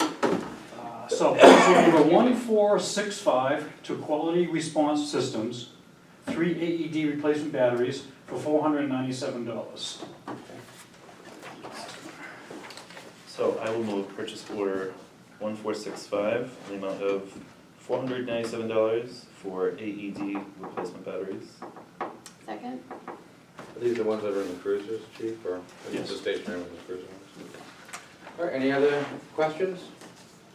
Uh, So, proposal number one four six five to Quality Response Systems, three AED replacement batteries for four hundred and ninety-seven dollars. So I will move purchase order one four six five in the amount of four hundred ninety-seven dollars for AED replacement batteries. Second? Are these the ones that are in the cruisers, chief, or is Yes. this the stationary with the cruiser ones? All right, any other questions?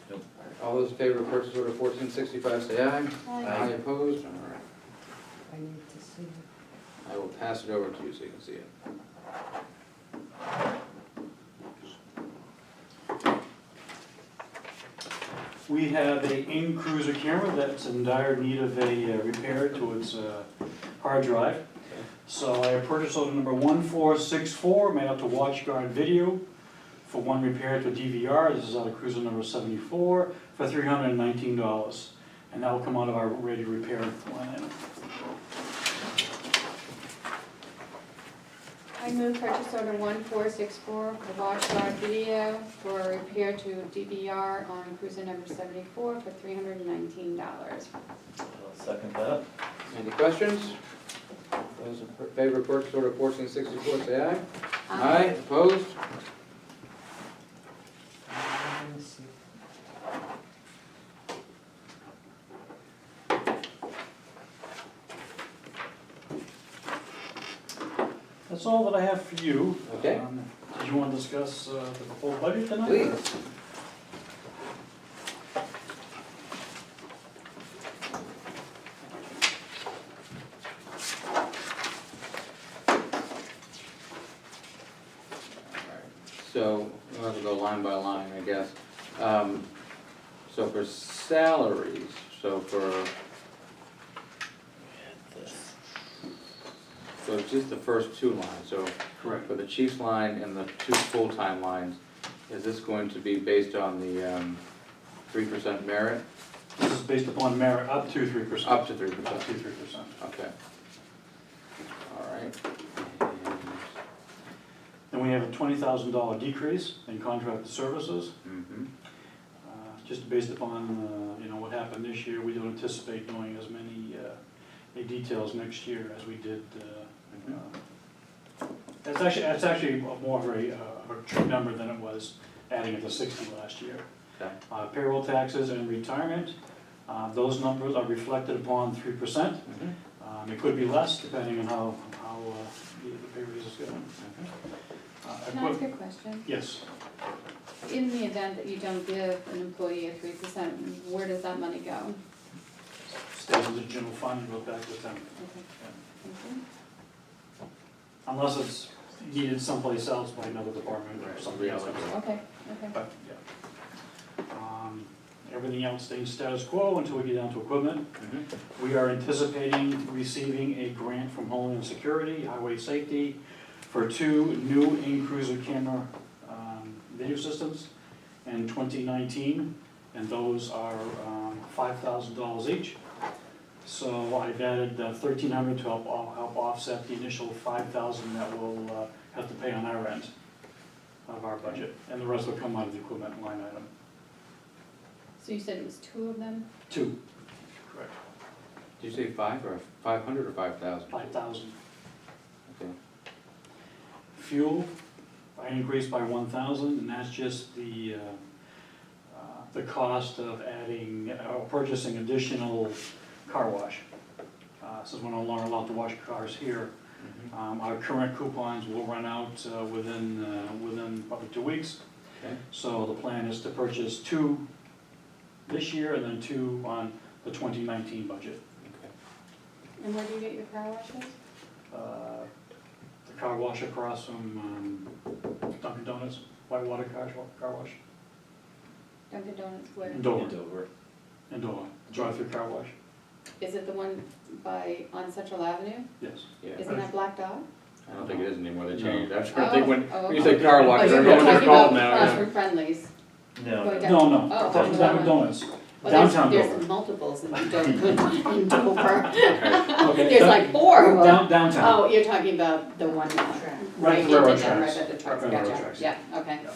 Nope. All those in favor of purchase order fourteen sixty-five, say aye. Aye. Aye opposed, all right. I need to see. I will pass it over to you so you can see it. We have a in-cruiser camera that's in dire need of a uh, repair to its uh, hard drive. So I purchased order number 1464, made out to WatchGuard Video for one repair to DVR. This is out of cruiser number 74 for $319. And that will come out of our ready repair line item. I move purchase order one four six four for WatchGuard Video for repair to DVR on cruiser number seventy-four for three hundred and nineteen dollars. I'll second that. Any questions? Those in favor of purchase order fourteen sixty-four, say aye. opposed? I wanna see. That's all that I have for you. Okay. Um, Did you want to discuss uh, the full budget tonight? Please. So, we'll have to go line by line, I guess. Um, So for salaries, so for, so just the first two lines, so Correct. for the chief's line and the two full-time lines, is this going to be based on the um, three percent merit? This is based upon merit, up to 3%. Up to three Up percent, to 3%. okay. All right. Then we have a twenty thousand dollar decrease in contracted services, And- mhm. uh, just based upon, uh, you know, what happened this year. We don't anticipate doing as many uh, details next year as we did. uh, uh, That's actually, that's actually more of a, uh, a true number than it was adding it to sixty last year. Okay. Uh, Payroll taxes and retirement, uh, those numbers are reflected upon three percent. Um, Mhm. It could be less depending on how, how uh, the the pay raise is going. Mhm. Uh, Can I ask equip- a question? Yes. In the event that you don't give an employee a three percent, where does that money go? stays in the general fund and goes back to the town. Okay, thank you. Unless it's needed someplace else by another department or something else. Okay, okay. But, yeah. Um, Everything else stays status quo until we get down to equipment. Mhm. We are anticipating receiving a grant from Homeland Security, Highway Safety, for two new in-cruiser camera um, video systems in 2019, and those are um, $5,000 each. So I've added uh, 1,300 to help o- help offset the initial 5,000 that we'll uh, have to pay on our end of our budget, and the rest will come out of the equipment line item. So you said it was two of them? Two. Correct. Did you say five or five hundred or five thousand? 5,000. Okay. Fuel, I increased by one thousand, and that's just the, uh, uh, the cost of adding, uh, or purchasing additional car wash. Uh, Since we're no longer allowed to wash cars here, Mhm. um, our current coupons will run out uh, within, uh, within probably two weeks. Okay. So the plan is to purchase two this year and then two on the twenty nineteen budget. Okay. And where do you get your car washes? Uh, The car wash across from um, Dunkin' Donuts, Whitewater Car Car Wash. Dunkin' Donuts, where? Mm. In Dover, Dover. in Dover, drive-through car wash, Is it the one by, on Central Avenue? yes. Yeah, Isn't that Black Dog? I don't think it is anymore, they No. changed. I was trying to think when, Oh, oh, when you oh. said car Oh, wash, I you're don't know what they're talking called about now. yeah. Crossword Friendlies. No, Going No, no, Oh, Dun- Dunkin' Donuts, Well, there's- downtown There's Dover. multiples in Dover, in Dover. Okay, There's dun- like four of them. Down- Downtown. Oh, you're talking about the one, uh, Track. right, the railroad in the- tracks. right at the tracks, Right, railroad gotcha. tracks. yeah, okay. Yeah.